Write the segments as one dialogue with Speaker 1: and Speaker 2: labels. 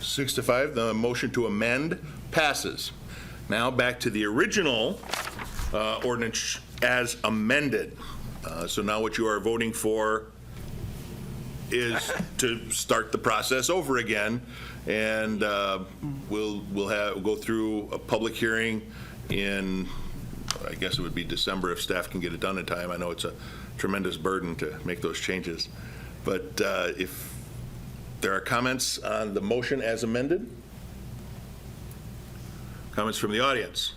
Speaker 1: six to five, the motion to amend passes. Now, back to the original uh, ordinance as amended. Uh, So now what you are voting for is to start the process over again, and uh, we'll, we'll have, go through a public hearing in, I guess it would be December if staff can get it done in time. I know it's a tremendous burden to make those changes, but uh, if there are comments on the motion as amended? Comments from the audience?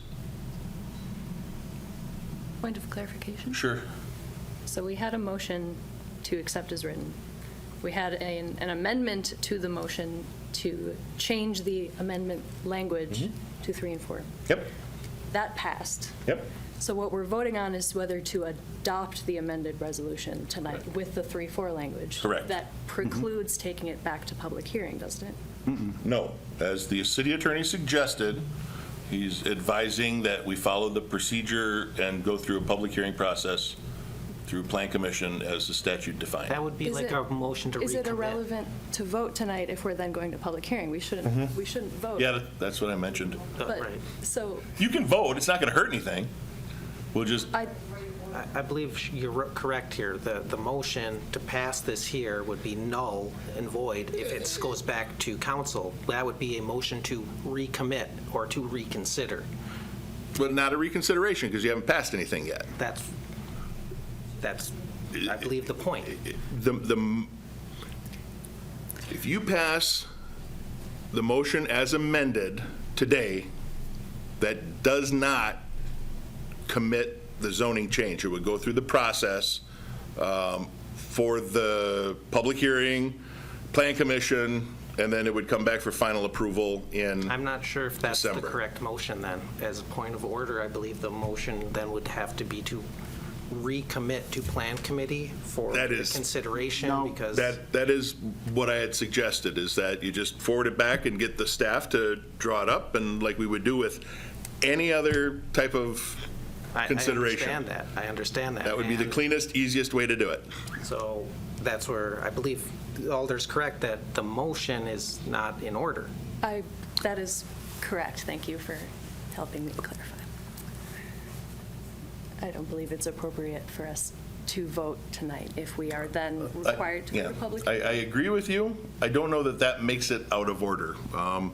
Speaker 2: Point of clarification.
Speaker 1: Sure.
Speaker 2: So we had a motion to accept as written. We had an an amendment to the motion to change the amendment language
Speaker 1: Mm-hmm.
Speaker 2: to three and four.
Speaker 1: Yep,
Speaker 2: That passed.
Speaker 1: yep.
Speaker 2: So what we're voting on is whether to adopt the amended resolution tonight
Speaker 1: Correct.
Speaker 2: with the three, four language.
Speaker 1: Correct. Mm-hmm.
Speaker 2: That precludes taking it back to public hearing, doesn't it?
Speaker 1: No, as the city attorney suggested, he's advising that we follow the procedure and go through a public hearing process through Plan Commission as the statute defined.
Speaker 3: That would be
Speaker 2: Is
Speaker 3: like
Speaker 2: it-
Speaker 3: a motion to
Speaker 2: Is it
Speaker 3: recommit.
Speaker 2: irrelevant to vote tonight if we're then going to public hearing? We shouldn't, we shouldn't vote.
Speaker 1: Mm-hmm. Yeah, that- that's what I mentioned.
Speaker 3: Uh,
Speaker 2: But,
Speaker 3: Right.
Speaker 2: so
Speaker 1: You can vote, it's not going to hurt anything. We'll just,
Speaker 2: I,
Speaker 3: I- I believe sh- you're r- correct here. The, the motion to pass this here would be null and void if it goes back to council. That would be a motion to recommit or to reconsider.
Speaker 1: but not a reconsideration because you haven't passed anything yet.
Speaker 3: That's, that's, I believe, the point.
Speaker 1: The, the, if you pass the motion as amended today, that does not commit the zoning change. It would go through the process um, for the public hearing, plan commission, and then it would come back for final approval in,
Speaker 3: I'm not sure if that's the
Speaker 1: December.
Speaker 3: correct motion then. As a point of order, I believe the motion then would have to be to recommit to plan committee for
Speaker 1: That is-
Speaker 3: consideration because.
Speaker 1: that, that is what I had suggested, is that you just forward it back and get the staff to draw it up, and like we would do with any other type of
Speaker 3: I-
Speaker 1: consideration.
Speaker 3: I understand that, I understand that.
Speaker 1: That would be the
Speaker 3: And
Speaker 1: cleanest, easiest way to do it.
Speaker 3: So that's where, I believe Alder's correct that the motion is not in order.
Speaker 2: I, that is correct. Thank you for helping me clarify. I don't believe it's appropriate for us to vote tonight if we are then
Speaker 1: I-
Speaker 2: required to go
Speaker 1: Uh, yeah,
Speaker 2: to public.
Speaker 1: I, I agree with you. I don't know that that makes it out of order. Um,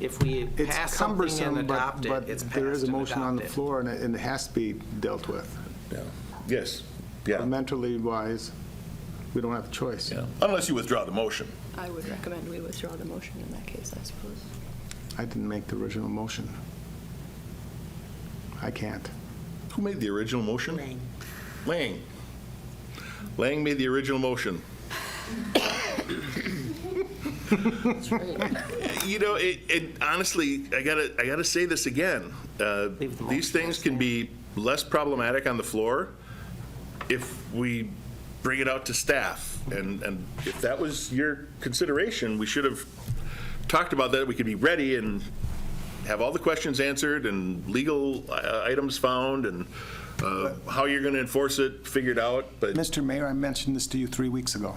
Speaker 3: If we
Speaker 4: It's
Speaker 3: pass something and
Speaker 4: cumbersome, but,
Speaker 3: adopt it,
Speaker 4: but
Speaker 3: it's passed
Speaker 4: there is a
Speaker 3: and
Speaker 4: motion on the
Speaker 3: adopted.
Speaker 4: floor, and it, and it has to be dealt with.
Speaker 1: Yes, yeah,
Speaker 4: Mentally wise, we don't have a choice.
Speaker 1: yeah. Unless you withdraw the motion.
Speaker 2: I would recommend we withdraw the motion in that case, I suppose.
Speaker 4: I didn't make the original motion. I can't.
Speaker 1: Who made the original motion? Lang. Lang. Lang made the original motion. You know, it, it, honestly, I gotta, I gotta say this again. Uh,
Speaker 3: Leave the
Speaker 1: These
Speaker 3: motion
Speaker 1: things can be less problematic on the floor if we bring it out to staff. And, and if that was your consideration, we should have talked about that. We could be ready and have all the questions answered and legal uh, items found and uh, how you're going to enforce it figured out, but,
Speaker 5: Mr. Mayor, I mentioned this to you three weeks ago.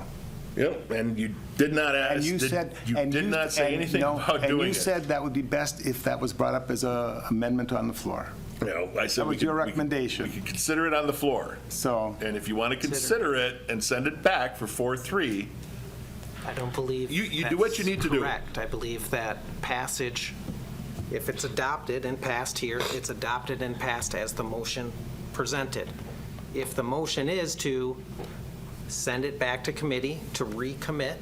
Speaker 1: yep, and you did not ask,
Speaker 5: And you
Speaker 1: did-
Speaker 5: said.
Speaker 1: you
Speaker 5: and
Speaker 1: did not say
Speaker 5: and
Speaker 1: anything
Speaker 5: no,
Speaker 1: about
Speaker 5: And
Speaker 1: doing
Speaker 5: you
Speaker 1: it.
Speaker 5: said that would be best if that was brought up as a amendment on the floor.
Speaker 1: No, I said
Speaker 5: That
Speaker 1: we
Speaker 5: was
Speaker 1: could-
Speaker 5: your
Speaker 1: we could-
Speaker 5: recommendation.
Speaker 1: We could consider it on the floor,
Speaker 5: So,
Speaker 1: and if you want to consider it and send it back for 4-3,
Speaker 3: I don't believe.
Speaker 1: You- you do what you
Speaker 3: that's
Speaker 1: need to do.
Speaker 3: Correct. I believe that passage, if it's adopted and passed here, it's adopted and passed as the motion presented. If the motion is to send it back to committee to recommit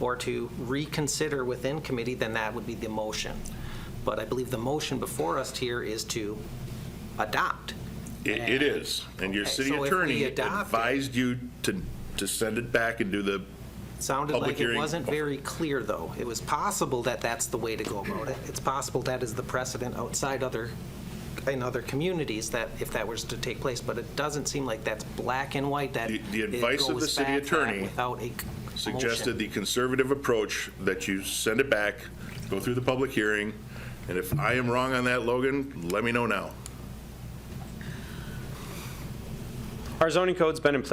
Speaker 3: or to reconsider within committee, then that would be the motion. But I believe the motion before us here is to adopt.
Speaker 1: It, it is, and your
Speaker 3: Okay,
Speaker 1: city
Speaker 3: so if we
Speaker 1: attorney
Speaker 3: adopt it-
Speaker 1: advised you to, to send it back and do the,
Speaker 3: Sounded
Speaker 1: Public
Speaker 3: like it
Speaker 1: hearing.
Speaker 3: wasn't very clear, though. It was possible that that's the way to go about it. It's possible that is the precedent outside other, in other communities, that if that was to take place, but it doesn't seem like that's black and white, that
Speaker 1: The-
Speaker 3: it
Speaker 1: the advice of the
Speaker 3: goes
Speaker 1: city
Speaker 3: back that
Speaker 1: attorney
Speaker 3: without a c-
Speaker 1: suggested
Speaker 3: motion.
Speaker 1: the conservative approach that you send it back, go through the public hearing, and if I am wrong on that, Logan, let me know now.
Speaker 6: Our zoning code's been in place